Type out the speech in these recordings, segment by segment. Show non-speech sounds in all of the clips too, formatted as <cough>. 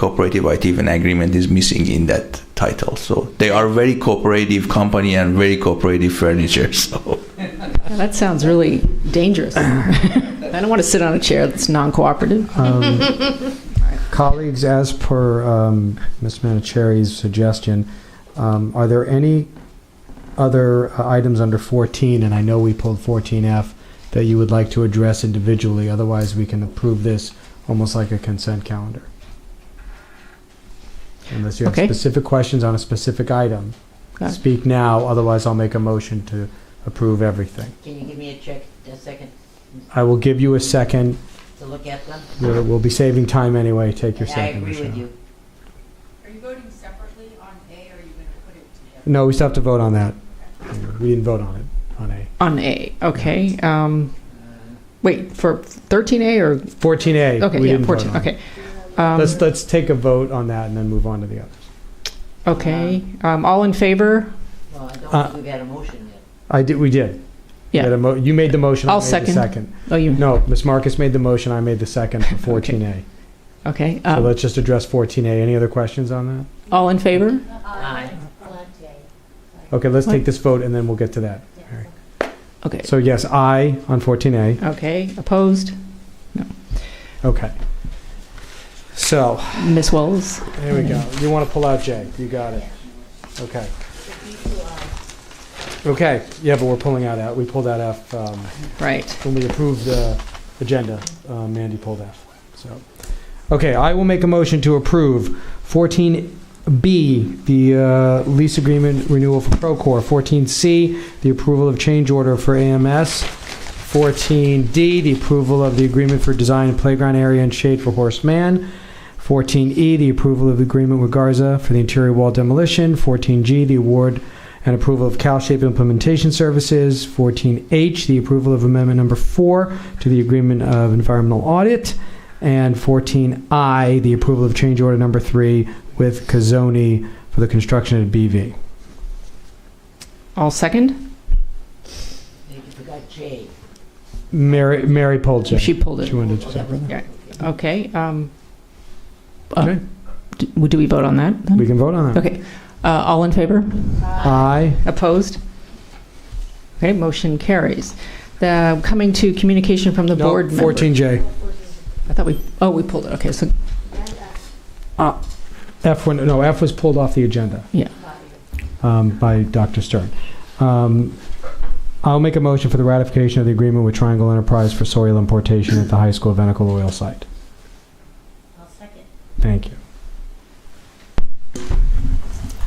cooperative IT even agreement is missing in that title. So they are very cooperative company and very cooperative furniture. <laughs> So Now, That sounds really dangerous. I don't want to sit on a chair that's non-cooperative. Um, <laughs> Colleagues, as per um, Ms. Manicheri's suggestion, um, are there any other uh, items under 14, and I know we pulled 14F, that you would like to address individually? Otherwise, we can approve this almost like a consent calendar. Unless you have Okay. specific questions on a specific item, Got it. speak now, otherwise I'll make a motion to approve everything. Can you give me a check, a second, I will give you a second. to look at them? You're- We'll be saving time anyway. Take your And I second, agree with Michelle. you. Are you voting separately on A, or are you going to put it together? No, we still have to vote on that. We didn't vote on it, on A. On A, okay. Um, Uh, wait, for 13A or, 14A. we okay, yeah, didn't vote 14, on it. okay. Um, Let's, let's take a vote on that and then move on to the others. Okay, um, all in favor? Well, I Uh, don't think we've had a motion yet. I did, we did. We Yeah. had a mo- You made the motion. I I'll made the second. Oh, you, No, Ms. Marcus made the motion, I made the second <laughs> for 14A. okay. So um, let's just address 14A. Any other questions on that? All in favor? Aye. Okay, let's What? take this vote and then we'll get to that. All right. Okay, So yes, I on 14A. okay, opposed? Okay. So, Ms. Wells? there we go. You want to pull out J. You got it. Okay. Okay, yeah, but we're pulling out F. We pulled out F. um, Right, when we approved the agenda, uh, Mandy pulled F. So, okay, I will make a motion to approve 14B, the uh, lease agreement renewal for Procore. 14C, the approval of change order for AMS. 14D, the approval of the agreement for design and playground area and shade for Horace Mann. 14E, E, the approval of the agreement with Garza for the interior wall demolition. 14G, the award and approval of CalShape implementation services. 14H, the approval of amendment number four to the agreement of environmental audit. And 14I, the approval of change order number three with Kazoni for the construction at BV. all second? You forgot J. Mary, Mary Polchak. She pulled it. She wanted to separate. Yeah. Okay, um, uh, Okay, do do we vote on that? then? we can vote on that. Okay, uh, all in favor? Aye. Opposed? Okay, motion carries. The, coming to communication from the No, board member. 14J. I thought we, oh, we pulled it, okay, so, F one, no, F was pulled off the agenda. Yeah. Um, by Dr. Stern. Um, I'll make a motion for the ratification of the agreement with Triangle Enterprise for soil importation at the high school Venical oil site. I'll second. Thank you.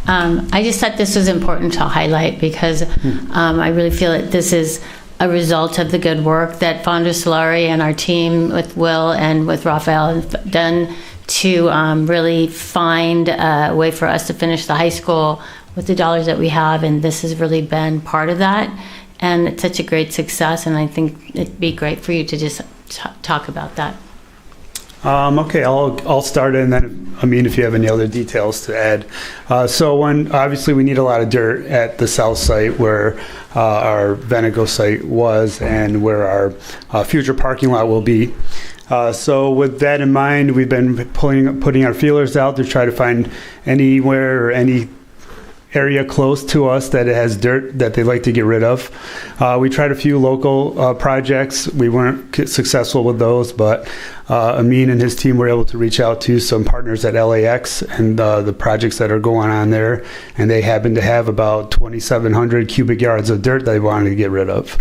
Um, I just thought this was important to highlight because um, I really feel that this is a result of the good work that Fonda Solari and our team with Will and with Raphael have done to um, really find a way for us to finish the high school with the dollars that we have, and this has really been part of that. And it's such a great success, and I think it'd be great for you to just t- talk about that. Um, okay, I'll, I'll start and then, I mean, if you have any other details to add. Uh, so when, obviously, we need a lot of dirt at the south site where uh, our Venego site was and where our uh, future parking lot will be. Uh, so with that in mind, we've been pulling, putting our feelers out to try to find anywhere or any area close to us that it has dirt that they'd like to get rid of. Uh, we tried a few local uh, projects. We weren't c- successful with those, but uh, Amin and his team were able to reach out to some partners at LAX and uh, the projects that are going on there. And they happen to have about 2,700 cubic yards of dirt they wanted to get rid of.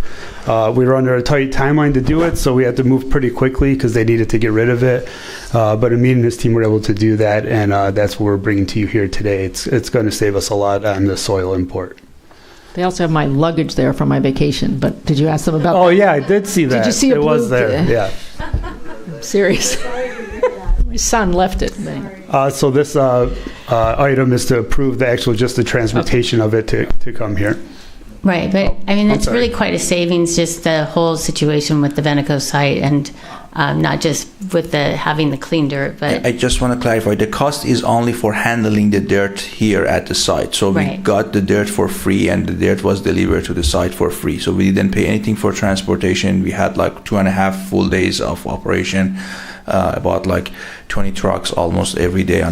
Uh, we were under a tight timeline to do it, so we had to move pretty quickly because they needed to get rid of it. Uh, but Amin and his team were able to do that, and uh, that's what we're bringing to you here today. It's it's going to save us a lot on the soil import. they also have my luggage there from my vacation, but did you ask them about, Oh yeah, I did see that. you see a it was blue- there? Yeah. serious? <laughs> My son left it, but- Uh, so this uh, uh, item is to approve the actual just the transportation of it to, to come here. Right, but Oh, I mean, I'm it's really quite a savings, just the whole situation with the Veneco site and um, not just with the, having the clean dirt, but. I just want to clarify the cost is only for handling the dirt here at the site. So we Right. got the dirt for free and the dirt was delivered to the site for free. So we didn't pay anything for transportation. We had like two and a half full days of operation. uh, about like 20 trucks almost every day on